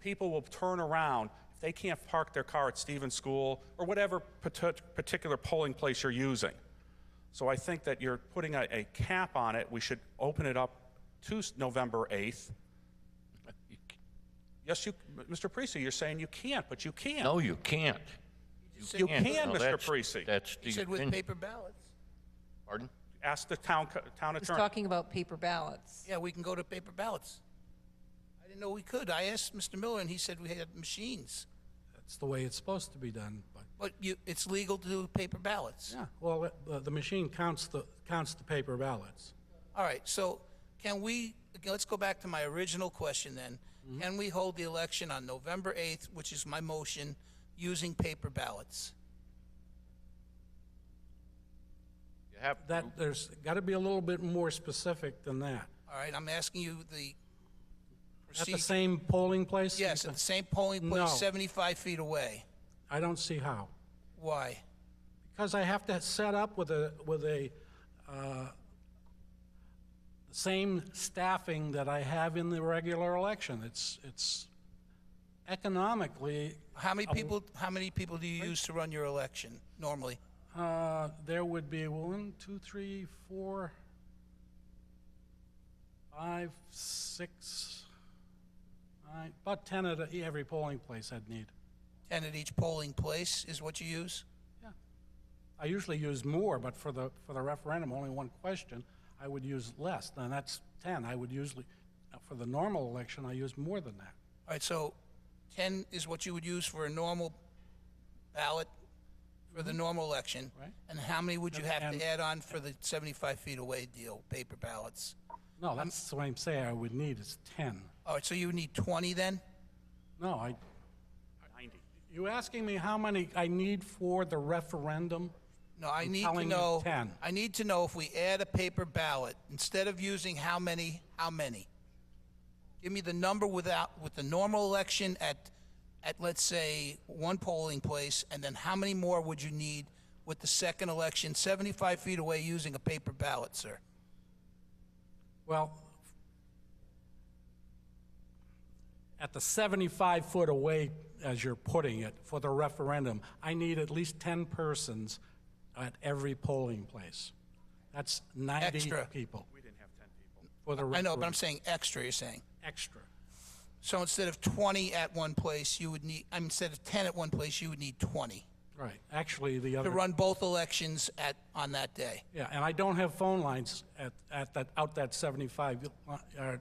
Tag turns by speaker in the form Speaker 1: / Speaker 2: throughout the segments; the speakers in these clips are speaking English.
Speaker 1: people will turn around if they can't park their car at Stevens School or whatever parti- particular polling place you're using. So I think that you're putting a, a cap on it. We should open it up to s- November 8th. Yes, you, Mr. Parisi, you're saying you can't, but you can.
Speaker 2: No, you can't.
Speaker 1: You can,
Speaker 2: No,
Speaker 1: Mr.
Speaker 2: that's-
Speaker 1: Parisi.
Speaker 2: That's the
Speaker 3: He said with
Speaker 2: opinion.
Speaker 3: paper ballots.
Speaker 2: Pardon?
Speaker 1: Ask the town, co- town
Speaker 4: He's
Speaker 1: attorney.
Speaker 4: talking about paper ballots.
Speaker 3: Yeah, we can go to paper ballots. I didn't know we could. I asked Mr. Miller, and he said we had machines.
Speaker 5: That's the way it's supposed to be done. But
Speaker 3: But you, it's legal to do paper ballots.
Speaker 5: yeah, well, uh, the, the machine counts the counts the paper ballots.
Speaker 3: All right, so can we, okay, let's go back to my original question then.
Speaker 5: Mm-hmm.
Speaker 3: Can we hold the election on November 8th, which is my motion, using paper ballots?
Speaker 2: You have
Speaker 5: That there's got to be a little bit more specific than that.
Speaker 3: All right, I'm asking you the
Speaker 5: At the
Speaker 3: procedure.
Speaker 5: same polling place.
Speaker 3: Yes, at the same polling
Speaker 5: No.
Speaker 3: place, 75 feet away.
Speaker 5: I don't see how.
Speaker 3: Why?
Speaker 5: Because I have to set up with a, with a, uh, same staffing that I have in the regular election. It's, it's economically,
Speaker 3: How many people, how many people do you use to run your election normally?
Speaker 5: uh, there would be one, two, three, four, five, six, nine, about 10 at a- every polling place I'd need.
Speaker 3: 10 at each polling place is what you use?
Speaker 5: I usually use more, but for the, for the referendum, only one question, I would use less. Now, that's 10. I would usually, uh, for the normal election, I use more than that.
Speaker 3: All right, so 10 is what you would use for a normal ballot for the normal election?
Speaker 5: Mm-hmm. Right.
Speaker 3: And how many would you have
Speaker 5: And-
Speaker 3: to add on for the 75 feet away deal, paper ballots?
Speaker 5: No, that's what I'm saying I would need is 10.
Speaker 3: All right, so you need 20 then?
Speaker 5: No, I,
Speaker 1: 90.
Speaker 5: you asking me how many I need for the referendum?
Speaker 3: No, I need to
Speaker 5: telling you
Speaker 3: know.
Speaker 5: 10.
Speaker 3: I need to know if we add a paper ballot, instead of using how many, how many? Give me the number without, with the normal election at, at let's say, one polling place, and then how many more would you need with the second election, 75 feet away using a paper ballot, sir?
Speaker 5: Well, at the 75 foot away, as you're putting it, for the referendum, I need at least 10 persons at every polling place. That's 90
Speaker 3: Extra.
Speaker 5: people. We didn't have 10 people. For the
Speaker 3: I know, but I'm
Speaker 5: referendum,
Speaker 3: saying extra, you're saying.
Speaker 5: extra.
Speaker 3: So instead of 20 at one place, you would need, I mean, instead of 10 at one place, you would need 20
Speaker 5: Right, actually, the
Speaker 3: to
Speaker 5: other,
Speaker 3: run both elections at, on that day.
Speaker 5: yeah, and I don't have phone lines at, at that, out that 75, li- uh,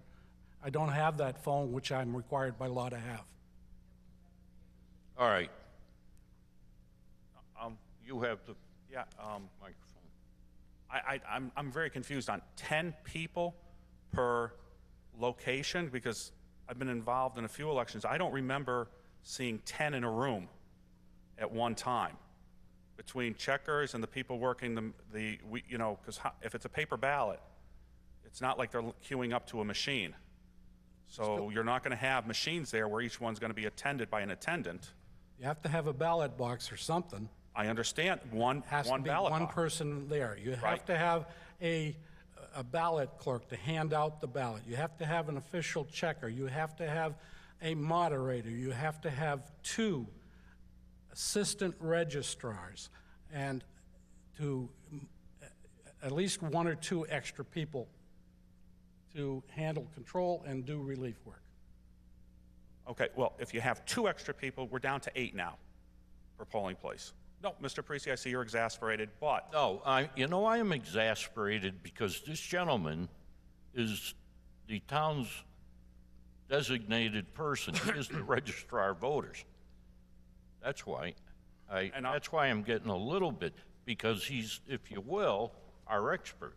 Speaker 5: I don't have that phone, which I'm required by law to have.
Speaker 2: All right. Um, you have the
Speaker 1: Yeah, um,
Speaker 2: microphone.
Speaker 1: I, I, I'm, I'm very confused on 10 people per location because I've been involved in a few elections. I don't remember seeing 10 in a room at one time between checkers and the people working the, the we, you know, because if it's a paper ballot, it's not like they're queuing up to a machine. So you're not going to have machines there where each one's going to be attended by an attendant.
Speaker 5: You have to have a ballot box or something.
Speaker 1: I understand one,
Speaker 5: has to
Speaker 1: one
Speaker 5: be
Speaker 1: ballot
Speaker 5: one
Speaker 1: box.
Speaker 5: person there. You
Speaker 1: Right.
Speaker 5: have to have a, a ballot clerk to hand out the ballot. You have to have an official checker. You have to have a moderator. You have to have two assistant registrars and to mm, at least one or two extra people to handle control and do relief work.
Speaker 1: Okay, well, if you have two extra people, we're down to eight now per polling place. No, Mr. Parisi, I see you're exasperated, but
Speaker 2: No, I, you know, I am exasperated because this gentleman is the town's designated person. He is the registrar of voters. That's why. I,
Speaker 1: And I-
Speaker 2: that's why I'm getting a little bit, because he's, if you will, our expert.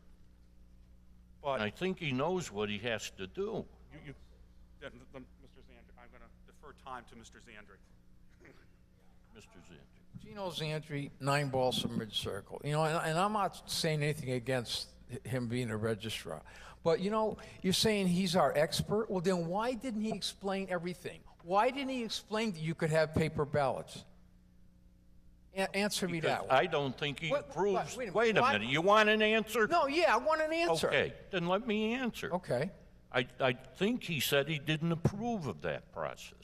Speaker 2: And
Speaker 1: but
Speaker 2: I think he knows what he has to do.
Speaker 1: you, you, then, then, Mr. Zandri, I'm going to defer time to Mr. Zandri.
Speaker 2: Mr. Zandri.
Speaker 6: Gino's entry, nine balls from mid-circle. You know, and, and I'm not saying anything against h- him being a registrar. But, you know, you're saying he's our expert? Well, then why didn't he explain everything? Why didn't he explain that you could have paper ballots? A- answer me that one.
Speaker 2: I don't think he
Speaker 6: What- what-
Speaker 2: approves.
Speaker 6: wait a minute,
Speaker 2: Wait a
Speaker 6: why-
Speaker 2: minute, you want an answer?
Speaker 6: No, yeah, I want an answer.
Speaker 2: Okay, then let me answer.
Speaker 6: Okay.
Speaker 2: I, I think he said he didn't approve of that process.